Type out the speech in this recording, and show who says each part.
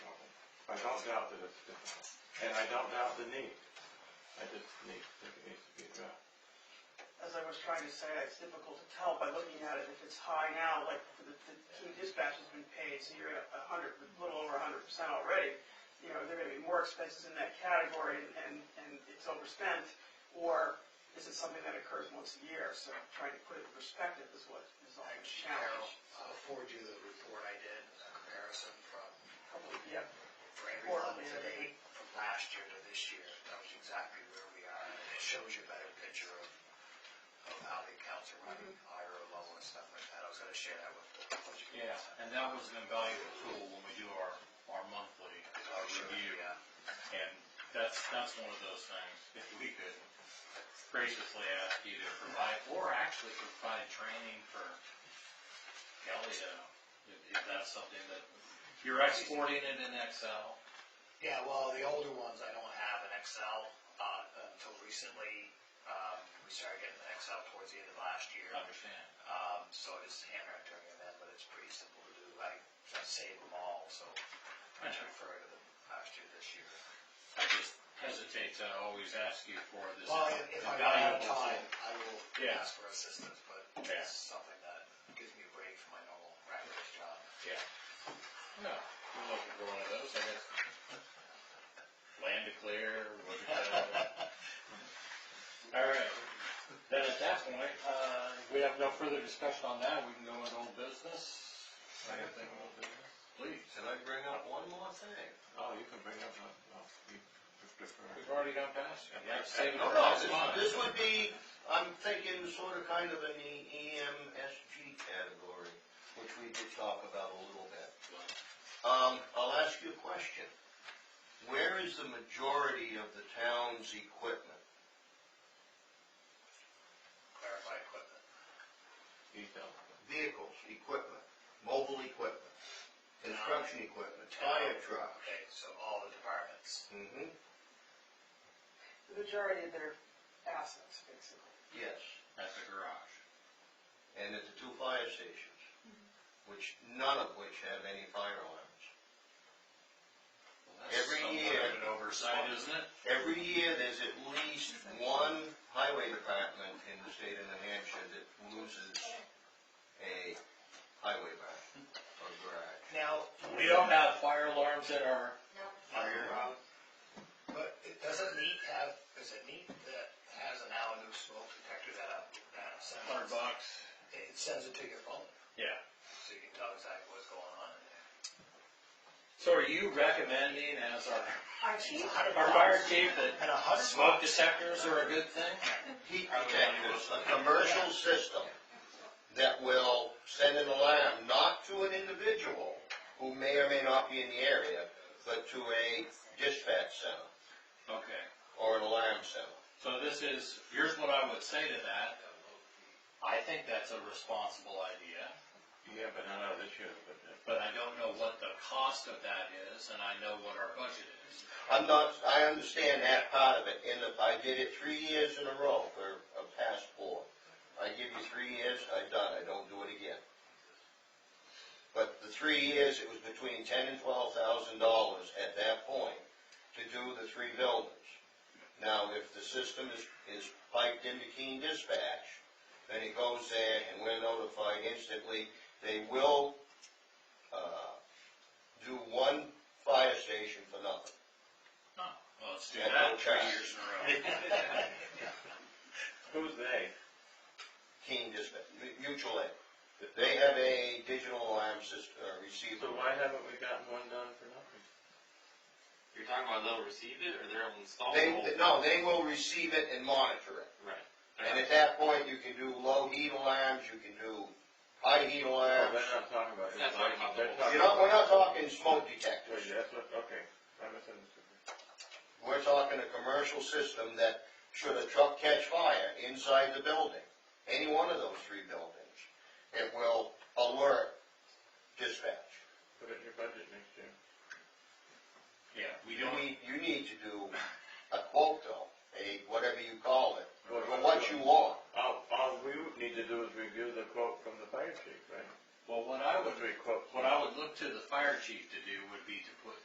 Speaker 1: don't doubt that it's difficult, and I don't doubt the need. I just need, think it needs to be uh, addressed.
Speaker 2: as I was trying to say, it's difficult to tell by looking at it, if it's high now, like, the, the team dispatch has been paid, so you're at a hundred, a little over a hundred percent already, you know, there are gonna be more expenses in that category, and, and it's overspent, or is it something that occurs once a year, so trying to put it in perspective is what is always a
Speaker 3: Carol,
Speaker 2: challenge.
Speaker 3: I'll uh, forward you the report I did, a comparison from,
Speaker 2: Probably, yeah,
Speaker 3: for every
Speaker 2: Or-
Speaker 3: level today, from last year to this year. That was exactly where we are, and it shows you a better picture of, of how the accounts are running, higher or lower and stuff like that. I was gonna share that with the budget.
Speaker 4: Yeah, and that was an invaluable tool when we do our, our monthly uh, review. And that's, that's one of those things, if we could graciously ask you to provide, or actually provide training for Kelly to, if if that's something that, you're exporting it in Excel.
Speaker 3: Yeah, well, the older ones I don't have in Excel, uh, until recently, um, we started getting the Excel towards the end of last year.
Speaker 4: Understand.
Speaker 3: Um, so it's handwritten and that, but it's pretty simple to do. I, I save them all, so I just refer to them last year, this year.
Speaker 4: I just hesitate to always ask you for this
Speaker 3: Well, if if I run out of
Speaker 4: invaluable tool.
Speaker 3: time, I will
Speaker 4: Yeah.
Speaker 3: ask for assistance, but
Speaker 4: Yeah.
Speaker 3: it's something that gives me a break from my normal regular job.
Speaker 4: No, I'm looking for one of those, I guess. Land to clear, what is that? All right, then at that point, uh, if we have no further discussion on that, we can go into old business. Anything old business? Please,
Speaker 5: Can I bring up one more thing?
Speaker 1: Oh, you can bring up, no, no, you just defer.
Speaker 4: we've already gone past it. Yeah, save it
Speaker 5: No,
Speaker 4: for
Speaker 5: no,
Speaker 4: next
Speaker 5: this-
Speaker 4: month.
Speaker 5: this would be, I'm thinking sort of kind of in the E EMSG category, which we did talk about a little bit. Um, I'll ask you a question. Where is the majority of the town's equipment?
Speaker 3: Clarify equipment.
Speaker 1: Detail.
Speaker 5: Vehicles, equipment, mobile equipment, construction equipment, fire trucks.
Speaker 3: Okay, so all the departments.
Speaker 5: hmm
Speaker 2: the majority of their assets, basically.
Speaker 5: yes.
Speaker 4: At the garage.
Speaker 5: And at the two fire stations, which, none of which have any fire alarms.
Speaker 4: Well, that's
Speaker 5: Every
Speaker 4: somewhat
Speaker 5: year.
Speaker 4: of An oversight, isn't it?
Speaker 5: Every year, there's at least one highway department in the state of New Hampshire that loses a highway bar or garage.
Speaker 3: Now,
Speaker 4: We don't have fire alarms at our.
Speaker 5: Fire,
Speaker 3: But it doesn't NEAT have, is it NEAT that has an Allen smoke detector that, uh, that sends?
Speaker 4: bucks.
Speaker 3: It sends it to your phone,
Speaker 4: Yeah.
Speaker 3: so you can tell exactly what's going on in there.
Speaker 4: So are you recommending as our,
Speaker 2: I think
Speaker 4: our fire chief that
Speaker 3: And a hundred
Speaker 4: Smoke detectors are a good thing?
Speaker 5: heat detectors, a commercial system that will send an alarm, not to an individual who may or may not be in the area, but to a dispatch center
Speaker 4: Okay,
Speaker 5: or an alarm center.
Speaker 4: so this is, here's what I would say to that. I think that's a responsible idea,
Speaker 1: Yeah, but not out of this year, but, uh,
Speaker 4: but I don't know what the cost of that is, and I know what our budget is.
Speaker 5: I'm not, I understand that part of it, and if I did it three years in a row for a past four. I give you three years, I done, I don't do it again. But the three years, it was between ten and twelve thousand dollars at that point to do the three buildings. Now, if the system is, is piped into Keene Dispatch, then it goes there and we're notified instantly. They will, uh, do one fire station for nothing.
Speaker 4: Well, let's do
Speaker 5: Yeah,
Speaker 4: that
Speaker 5: no
Speaker 4: three
Speaker 5: cost.
Speaker 4: years in a row.
Speaker 1: who's they?
Speaker 5: Keen Dispatch, Mutual Aid. They have a digital alarm system, uh,
Speaker 1: So
Speaker 5: receiver.
Speaker 1: why haven't we gotten one done for nothing?
Speaker 6: You're talking about they'll receive it or they'll install
Speaker 5: They,
Speaker 6: the whole?
Speaker 5: no, they will receive it and monitor it.
Speaker 6: Right.
Speaker 5: And at that point, you can do low heat alarms, you can do high heat
Speaker 1: Oh,
Speaker 5: alarms.
Speaker 1: they're not talking about. it.
Speaker 6: That's talking about the
Speaker 1: They're
Speaker 6: whole-
Speaker 1: talking
Speaker 5: You know, we're not
Speaker 1: about-
Speaker 5: talking smoke detectors.
Speaker 1: Wait, that's what, okay, I misunderstood.
Speaker 5: We're talking a commercial system that should a truck catch fire inside the building, any one of those three buildings, it will alert dispatch.
Speaker 1: Put it in your budget next year.
Speaker 4: Yeah, we
Speaker 5: You
Speaker 4: don't,
Speaker 5: need, you need to do a quote though, a, whatever you call it,
Speaker 1: Well,
Speaker 5: for what you want.
Speaker 1: All, Oh, all we would need to do is review the quote from the fire chief, right?
Speaker 4: well, what I would,
Speaker 1: What we quote,
Speaker 4: what I would look to the fire chief to do would be to